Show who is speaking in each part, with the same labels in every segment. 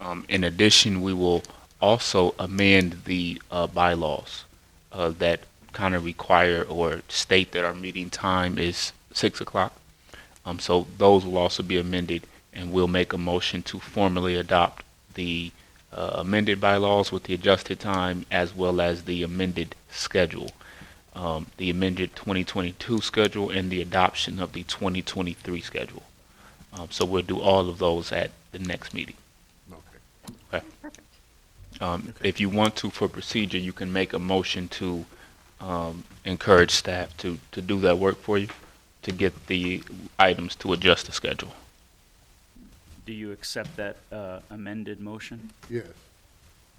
Speaker 1: Um, in addition, we will also amend the uh, bylaws uh, that kind of require or state that our meeting time is six o'clock. Um, so those will also be amended, and we'll make a motion to formally adopt the uh, amended bylaws with the adjusted time as well as the amended schedule, um, the amended 2022 schedule, and the adoption of the 2023 schedule. Um, so we'll do all of those at the next meeting. Um, If you want to, for procedure, you can make a motion to um, encourage staff to, to do that work for you, to get the items to adjust the schedule.
Speaker 2: Do you accept that uh, amended motion?
Speaker 3: Yes.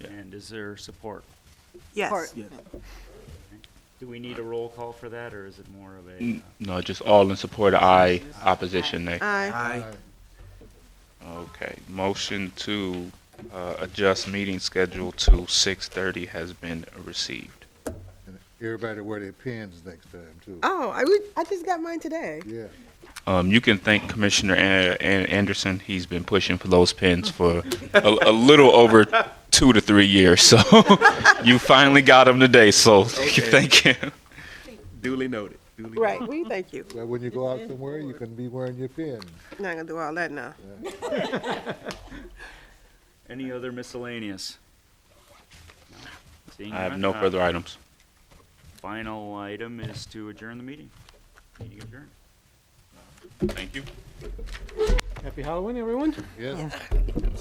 Speaker 1: Yeah.
Speaker 2: And is there support?
Speaker 4: Yes.
Speaker 2: Do we need a roll call for that, or is it more of a? uh,
Speaker 1: N- No, just all in support, aye, opposition, nay.
Speaker 4: Aye.
Speaker 1: Okay, motion to uh, adjust meeting schedule to 6:30 has been received.
Speaker 3: And everybody wear their pins next time too.
Speaker 4: Oh, I would, I just got mine today.
Speaker 3: Yeah.
Speaker 1: Um, You can thank Commissioner An- An- Anderson, he's been pushing for those pins for a a little over two to three years, so you finally got them today, so you
Speaker 5: Okay.
Speaker 1: thank him.
Speaker 5: Duly noted. Duly noted.
Speaker 4: Right, we thank you.
Speaker 3: Well, when you go out somewhere, you can be wearing your pin.
Speaker 4: Not gonna do all that now.
Speaker 2: Any other miscellaneous? Seeing
Speaker 1: I have
Speaker 2: none,
Speaker 1: no
Speaker 2: uh,
Speaker 1: further items.
Speaker 2: Final item is to adjourn the meeting. Meeting adjourned.
Speaker 1: Thank you.
Speaker 6: Happy Halloween, everyone.
Speaker 3: Yes.